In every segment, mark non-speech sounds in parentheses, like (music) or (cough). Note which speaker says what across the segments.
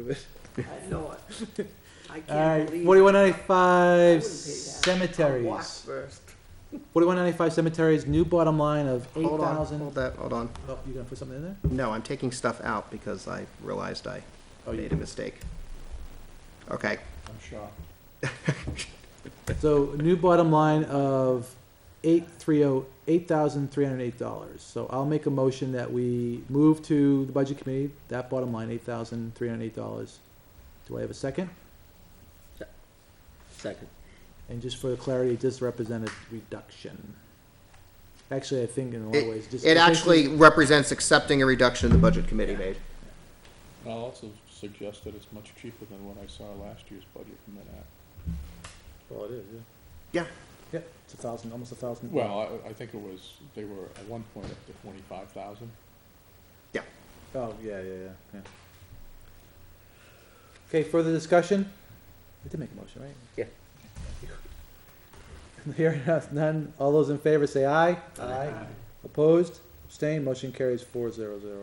Speaker 1: of it.
Speaker 2: I know it. (laughs) I can't
Speaker 3: Alright,
Speaker 2: believe.
Speaker 3: forty-one
Speaker 2: I wouldn't
Speaker 3: ninety-five
Speaker 2: pay that. I'll walk
Speaker 3: cemeteries.
Speaker 2: first.
Speaker 3: Forty-one ninety-five cemeteries, new bottom line of eight
Speaker 1: Hold on,
Speaker 3: thousand.
Speaker 1: hold that, hold on.
Speaker 3: Oh, you gonna put something in there?
Speaker 1: No, I'm taking stuff out because I realized I
Speaker 3: Oh, you
Speaker 1: made a mistake. Okay,
Speaker 3: I'm shocked.
Speaker 1: (laughs)
Speaker 3: So new bottom line of eight three oh, eight thousand three hundred eight dollars. So I'll make a motion that we move to the budget committee, that bottom line, eight thousand three hundred eight dollars. Do I have a second?
Speaker 4: Second.
Speaker 3: And just for clarity, it does represent a reduction. Actually, I think in a lot of ways, just.
Speaker 1: it actually represents accepting a reduction the budget committee made.
Speaker 5: I'll also suggest that it's much cheaper than what I saw last year's budget from that act.
Speaker 4: Well, it is, yeah.
Speaker 3: Yep, it's a thousand, almost a thousand.
Speaker 5: Well, I, I think it was, they were at one point up to twenty-five thousand.
Speaker 3: Oh, yeah, yeah, yeah, yeah. Okay, further discussion? I did make a motion, right?
Speaker 4: Yeah.
Speaker 3: (laughs) Hearing none, all those in favor say aye. Aye. Opposed, abstained, motion carries four zero zero.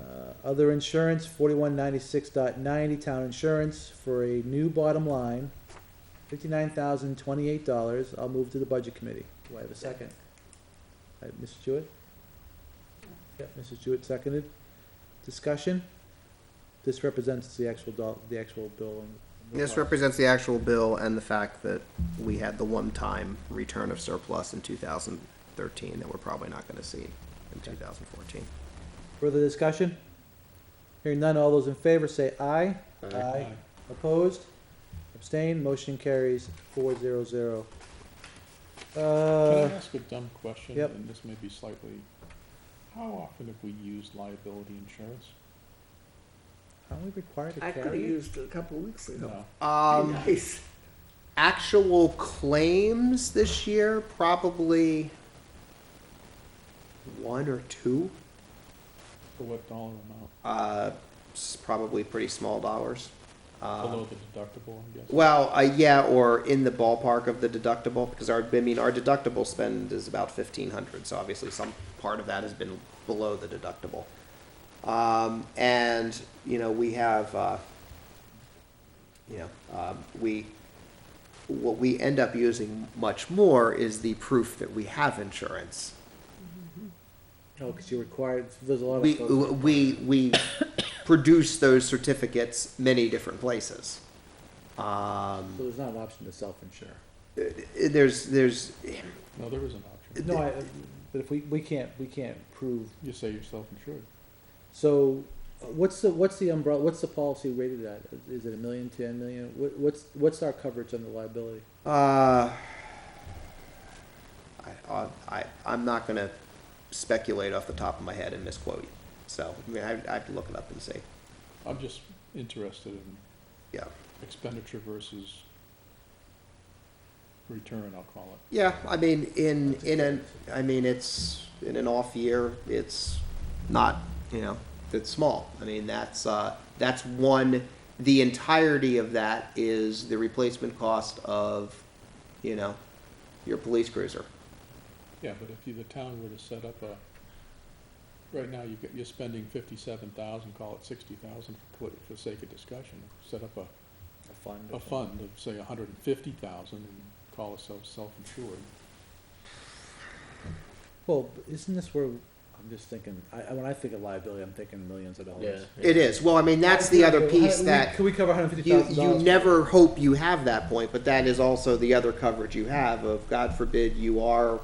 Speaker 3: Uh, other insurance, forty-one ninety-six dot ninety, town insurance, for a new bottom line, fifty-nine thousand twenty-eight dollars, I'll move to the budget committee. Do I have a second? Uh, Mrs. Jewett? Yep, Mrs. Jewett seconded. Discussion? This represents the actual doll, the actual bill and.
Speaker 1: This represents the actual bill and the fact that we had the one-time return of surplus in two thousand thirteen that we're probably not gonna see in two thousand fourteen.
Speaker 3: Further discussion? Hearing none, all those in favor say aye.
Speaker 4: Aye.
Speaker 3: Opposed? Abstained, motion carries four zero zero. Uh,
Speaker 5: Can I ask a dumb question?
Speaker 3: yep.
Speaker 5: And this may be slightly, how often have we used liability insurance?
Speaker 3: aren't we required to
Speaker 2: I could have
Speaker 3: carry it?
Speaker 2: used it a couple of weeks ago.
Speaker 5: No.
Speaker 1: Um,
Speaker 2: Nice.
Speaker 1: actual claims this year, probably one or two,
Speaker 5: For what dollar amount?
Speaker 1: uh, s- probably pretty small dollars.
Speaker 5: Below
Speaker 1: Um,
Speaker 5: the deductible, I guess?
Speaker 1: well, uh, yeah, or in the ballpark of the deductible, because our, I mean, our deductible spend is about fifteen hundred, so obviously some part of that has been below the deductible. Um, and, you know, we have, uh, you know, um, we, what we end up using much more is the proof that we have insurance.
Speaker 3: No, cause you're required, there's a lot of
Speaker 1: We,
Speaker 3: folks.
Speaker 1: we, we produce those certificates many different places.
Speaker 3: So
Speaker 1: Um,
Speaker 3: there's not an option to self-insure.
Speaker 1: there's, there's,
Speaker 5: No, there is an option.
Speaker 3: No, I, but if we, we can't, we can't prove
Speaker 5: You say you're self-insured.
Speaker 3: So, uh, what's the, what's the umbrella, what's the policy rated at? Is it a million, ten million? What, what's, what's our coverage on the liability?
Speaker 1: uh, I, I, I- I'm not gonna speculate off the top of my head and misquote you. So, I mean, I, I have to look it up and see,
Speaker 5: I'm just interested in
Speaker 1: yeah.
Speaker 5: expenditure versus return, I'll call it.
Speaker 1: Yeah, I mean, in, in an, I mean, it's, in an off year, it's not, you know, it's small. I mean, that's, uh, that's one, the entirety of that is the replacement cost of, you know, your police cruiser.
Speaker 5: Yeah, but if you, the town were to set up a, right now, you get, you're spending fifty-seven thousand, call it sixty thousand for, for sake of discussion. Set up a,
Speaker 3: A fund.
Speaker 5: a fund of, say, a hundred and fifty thousand and call ourselves self-insured.
Speaker 3: Well, but isn't this where, I'm just thinking, I, I- when I think of liability, I'm thinking millions of dollars.
Speaker 1: It is, well, I mean, that's the other piece
Speaker 3: How- we-
Speaker 1: that
Speaker 3: Could we cover hundred fifty
Speaker 1: you,
Speaker 3: thousand
Speaker 1: you
Speaker 3: dollars?
Speaker 1: never hope you have that point, but that is also the other coverage you have of, God forbid, you are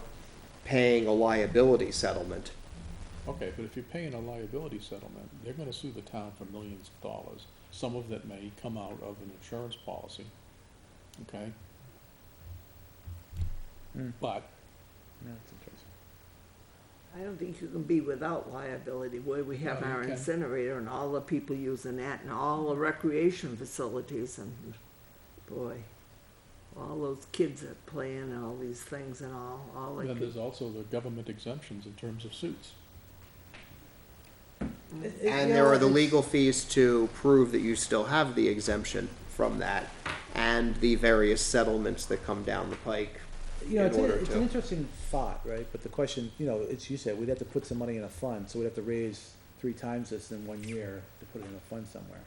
Speaker 1: paying a liability settlement.
Speaker 5: Okay, but if you're paying a liability settlement, they're gonna sue the town for millions of dollars, some of that may come out of an insurance policy, okay?
Speaker 3: Hmm.
Speaker 5: But
Speaker 2: I don't think you can be without liability, where we have
Speaker 5: No, you
Speaker 2: our
Speaker 5: can.
Speaker 2: incinerator and all the people using that and all the recreation facilities and, boy, all those kids that playing and all these things and all, all the
Speaker 5: then
Speaker 2: kids.
Speaker 5: there's also the government exemptions in terms of suits.
Speaker 1: And there are the legal fees to prove that you still have the exemption from that and the various settlements that come down the pike.
Speaker 3: You know,
Speaker 1: in
Speaker 3: it's, a-
Speaker 1: order
Speaker 3: it's
Speaker 1: to-
Speaker 3: an interesting thought, right? But the question, you know, it's, you said, we'd have to put some money in a fund, so we'd have to raise three times this in one year to put it in a fund somewhere.